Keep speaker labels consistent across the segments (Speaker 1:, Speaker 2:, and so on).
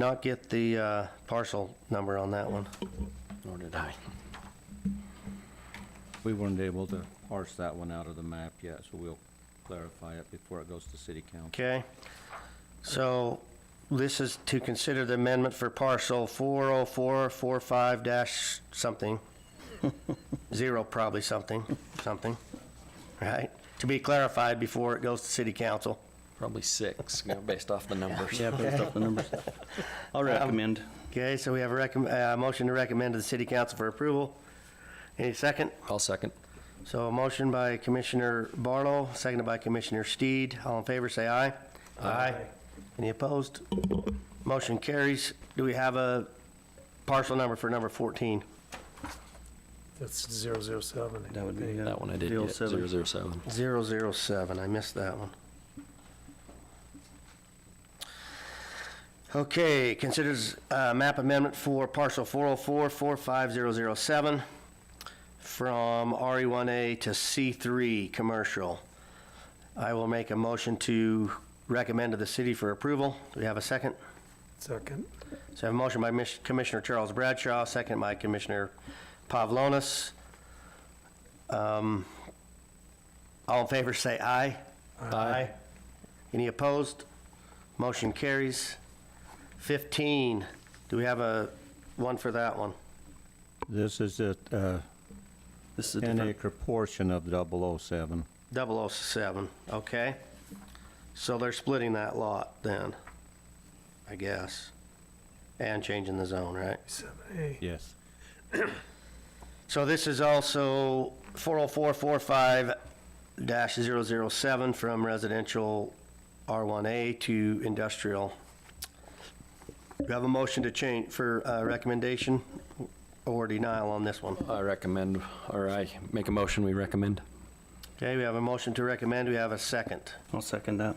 Speaker 1: not get the uh, parcel number on that one,
Speaker 2: Nor did I. We weren't able to parse that one out of the map yet, so we'll clarify it before it goes to city council.
Speaker 1: okay? So this is to consider the amendment for parcel 40445 dash something, zero probably something, something, right? To be clarified before it goes to city council.
Speaker 3: Probably six, you know, based off the numbers. Um,
Speaker 2: Yeah, based off the numbers. I'll recommend.
Speaker 1: Okay, so we have a recomm- uh motion to recommend to the city council for approval. Any second?
Speaker 3: I'll second.
Speaker 1: So a motion by Commissioner Barlow, seconded by Commissioner Steed. All in favor, say aye. Aye. Any opposed? Motion carries. Do we have a parcel number for number 14?
Speaker 4: That's zero zero seven.
Speaker 2: That would be, uh,
Speaker 3: That one I did
Speaker 1: Deal
Speaker 3: get,
Speaker 1: seven.
Speaker 3: zero zero seven.
Speaker 1: 007, I missed that one. Okay, considers uh, map amendment for parcel 404-45007 from RE1A to C3 Commercial. I will make a motion to recommend to the city for approval. Do we have a second?
Speaker 4: Second.
Speaker 1: So I have a motion by Mish- Commissioner Charles Bradshaw, second by Commissioner Pavlonis. Um, All in favor, say aye. Aye. Any opposed? Motion carries. 15, do we have a, one for that one?
Speaker 2: This is a, uh,
Speaker 3: This is a
Speaker 2: ten
Speaker 3: different,
Speaker 2: acre portion of 007.
Speaker 1: 007, okay. So they're splitting that lot then, I guess, and changing the zone, right?
Speaker 4: Seven A.
Speaker 2: Yes.
Speaker 1: So this is also 40445-007 from residential R1A to industrial. Do you have a motion to change for uh, recommendation or denial on this one?
Speaker 3: I recommend, or I make a motion, we recommend.
Speaker 1: Okay, we have a motion to recommend, we have a second.
Speaker 2: I'll second that.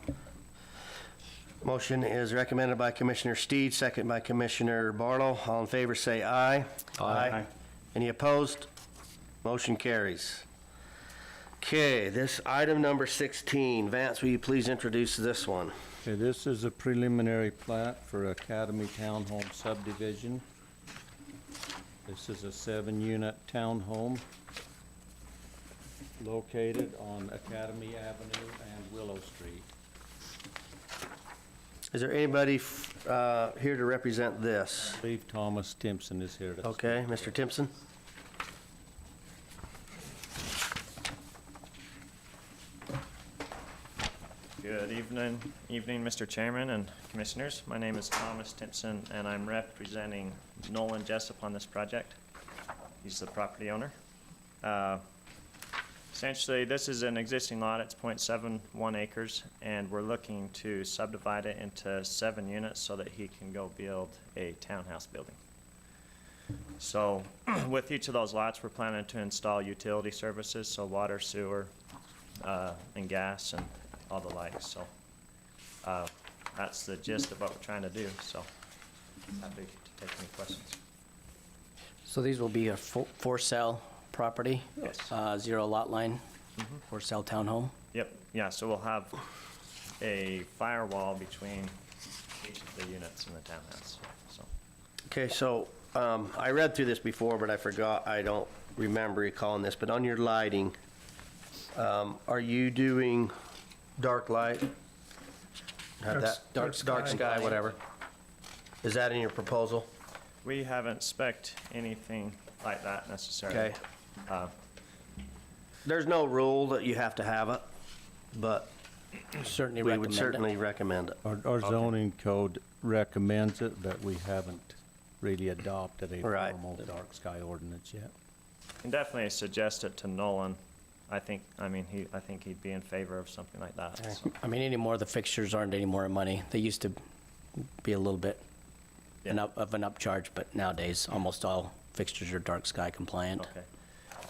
Speaker 1: Motion is recommended by Commissioner Steed, second by Commissioner Barlow. All in favor, say aye.
Speaker 3: Aye.
Speaker 1: Any opposed? Motion carries. Okay, this item number 16, Vance, will you please introduce this one?
Speaker 2: Okay, this is a preliminary plat for Academy Townhome subdivision. This is a seven-unit townhome located on Academy Avenue and Willow Street.
Speaker 1: Is there anybody f- uh, here to represent this?
Speaker 2: I believe Thomas Timpson is here to.
Speaker 1: Okay, Mr. Timpson?
Speaker 5: Good evening, evening, Mr. Chairman and Commissioners. My name is Thomas Timpson, and I'm representing Nolan Jessup on this project. He's the property owner. Uh, Essentially, this is an existing lot, it's .71 acres, and we're looking to subdivide it into seven units so that he can go build a townhouse building. So with each of those lots, we're planning to install utility services, so water, sewer, uh, and gas and all the likes, so, uh, that's the gist of what we're trying to do, so, happy to take any questions.
Speaker 6: So these will be a fo- for-sale property?
Speaker 5: Yes.
Speaker 6: uh, Zero lot line, for-sale townhome?
Speaker 5: Yep, yeah, so we'll have a firewall between each of the units in the townhouse, so.
Speaker 1: Okay, so um, I read through this before, but I forgot, I don't remember recalling this, but on your lighting, um, are you doing dark light? Have
Speaker 4: Dark
Speaker 1: that-
Speaker 4: s- dark
Speaker 1: Dark
Speaker 4: sky.
Speaker 1: sky, whatever. Is that in your proposal?
Speaker 5: We haven't spec'd anything like that necessarily.
Speaker 1: Okay.
Speaker 5: Uh,
Speaker 1: There's no rule that you have to have it, but
Speaker 6: Certainly
Speaker 1: we would
Speaker 6: recommend it.
Speaker 1: certainly recommend it.
Speaker 2: Our, our zoning code recommends it, but we haven't really adopted a
Speaker 1: Right.
Speaker 2: formal dark sky ordinance yet.
Speaker 5: Can definitely suggest it to Nolan. I think, I mean, he, I think he'd be in favor of something like that, so,
Speaker 6: I mean, anymore, the fixtures aren't any more money. They used to be a little bit an
Speaker 5: Yeah.
Speaker 6: up- of an upcharge, but nowadays, almost all fixtures are dark sky compliant.
Speaker 5: okay.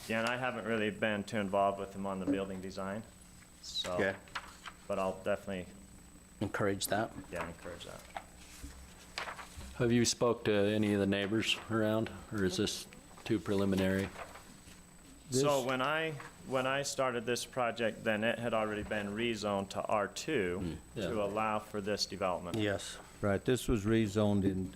Speaker 5: Yeah, and I haven't really been too involved with him on the building design, so,
Speaker 1: Okay.
Speaker 5: but I'll definitely,
Speaker 6: Encourage that.
Speaker 5: yeah, encourage that.
Speaker 3: Have you spoke to any of the neighbors around, or is this too preliminary?
Speaker 5: So when I, when I started this project, then it had already been rezoned to R2
Speaker 3: Yeah.
Speaker 5: to allow for this development.
Speaker 1: Yes.
Speaker 2: Right, this was rezoned in